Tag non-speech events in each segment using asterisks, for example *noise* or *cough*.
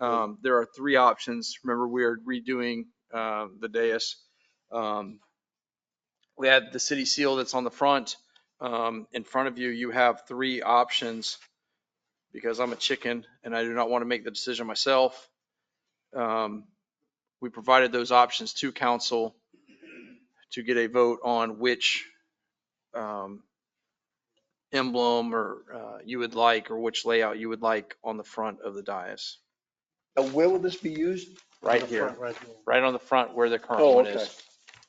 Um, There are three options. Remember, we are redoing uh, the dais. Um, We had the city seal that's on the front. Um, In front of you, you have three options because I'm a chicken and I do not want to make the decision myself. Um, We provided those options to council to get a vote on which um, emblem or uh, you would like, or which layout you would like on the front of the dais. Now, where will this be used? Right On the here, front, right here. right on the front where the current Oh, one okay. is.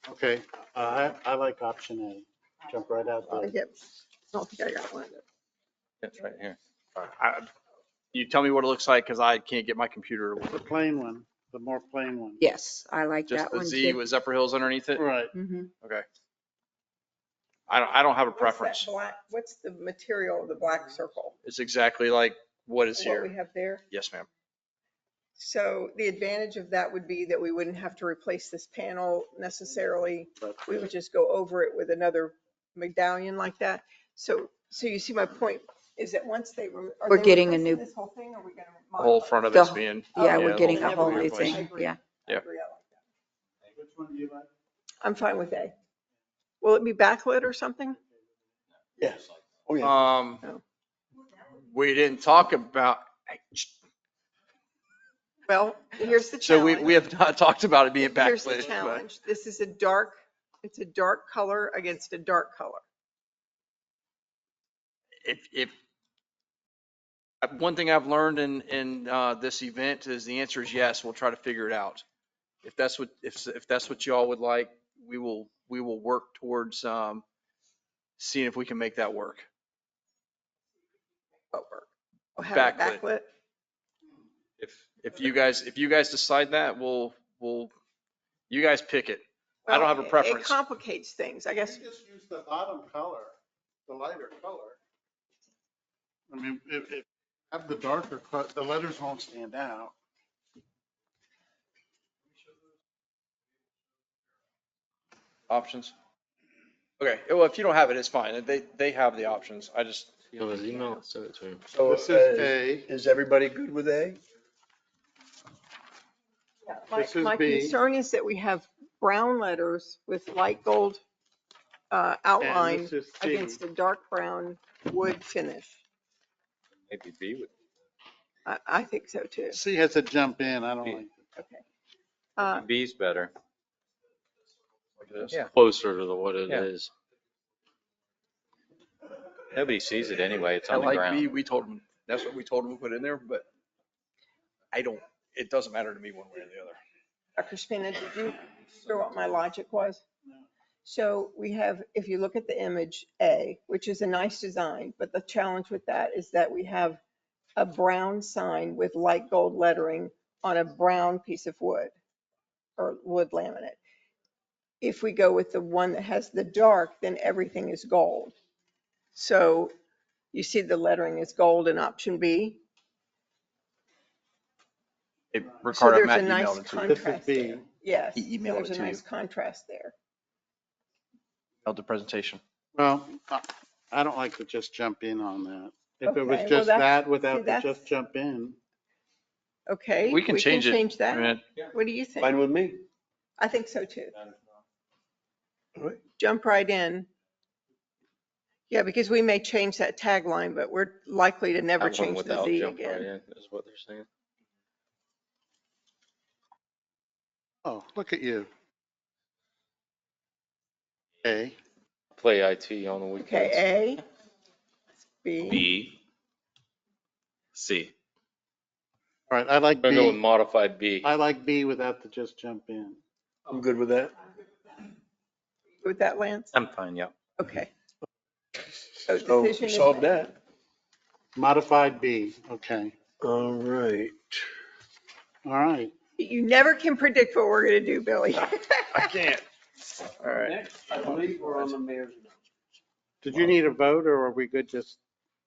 Okay, uh, I, I like option A, jump right out I there. get- I don't think I got one. That's right here. I- You tell me what it looks like because I can't get my computer to work. The plain one, the more plain one. Yes, I like Just that the one Z too. with Zephyr Hills underneath it. Right, Mm-hmm. Mhm. I don't, I don't have a What's that preference. black- What's the material of the black circle? It's exactly like what is What we here. have there? Yes, ma'am. So the advantage of that would be that we wouldn't have to replace this panel necessarily. but We would just go over it with another medallion like that. So, so you see my point is that once they. rem- are We're they getting a replacing new- This whole thing, or are we gonna? The whole modify front of The it's wh- being. Yeah, Oh, yeah, we're getting a never whole mind. new I thing, agree. yeah. it? I Yeah. agree, I like that. Which one do you like? I'm fine with A. Will it be backlit or something? Yes. Oh, yeah. Um, Oh. we didn't talk about, Well, here's the so challenge. we, we have not *laughs* talked about it being Here's the backlit. but- challenge. This is a dark, it's a dark color against a dark color. if, if, uh, one thing I've learned in, in, uh, this event is the answer is yes, we'll try to figure it out. If that's what, if, if that's what y'all would like, we will, we will work towards, um, seeing if we can make that work. over. Oh, Or have it Backlit. backlit. If, if you guys, if you guys decide that, we'll, we'll, you guys pick it. I don't Well, have a it- It preference. complicates things, I guess. just use the bottom color, the lighter color. I mean, if, if, have the darker, co- the letters won't stand out. Options? Okay, well, if you don't have it, it's fine. They, they have the options. I just, It was email, send it to him. So This is uh, A, is everybody good with A? My, This is my B. concern is that we have brown letters with light gold uh, and outline this is C. against a dark brown wood finish. Maybe B would. I, I think so too. C has a jump in, I don't Yeah. like. Uh, B's better. this. It's Closer to the what it Yeah. is. Nobody sees it anyway. It's I on the like B, ground. we told them, that's what we told them to put in there, but I don't, it doesn't matter to me one way or the other. Dr. Spina, did you hear what my logic was? So we have, if you look at the image A, which is a nice design, but the challenge with that is that we have a brown sign with light gold lettering on a brown piece of wood or wood laminate. If we go with the one that has the dark, then everything is gold. So you see the lettering is gold in option B. So Ricardo, there's Matt a nice emailed it to you. This is contrast B. there. Yes. He so emailed it There's to a you. nice contrast there. Emailed the presentation. Well, I- I don't like to just jump in on that. If it was Okay, well, just that's- that see, without the that's- just jump in, Okay. We can change it. Change I that. mean, What do you Fine think? with me. I think so too. All right. Jump right in. Yeah, because we may change that tagline, but we're likely to never Have one change the without Z jump right again. in, Is what they're saying. oh, look at you. A, Play IT on the weekends. Okay, A. B. B. C. all right, I like I'm gonna go with B. modified B. I like B without the just jump in. I'm good with that. With that, Lance? I'm fine, yeah. Okay. So So decision is solve made. that. Modified B, okay, All right. all right. You never can predict what we're going to *laughs* do, Billy. I can't. All right. I believe we're on the mayor's. Did you need a vote or are we good just?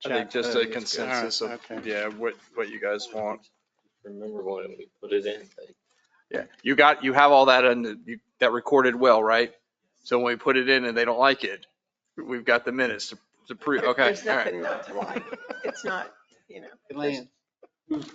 I think chat? just Uh, All a right, consensus of, okay. yeah, what, what you guys want. Remember when we put it in. Yeah, you got, you have all that and you, that recorded well, right? So when we put it in and they don't like it, we've got the minutes to- to prove, okay, There's all right. nothing not to like. It's not, you know. Lance.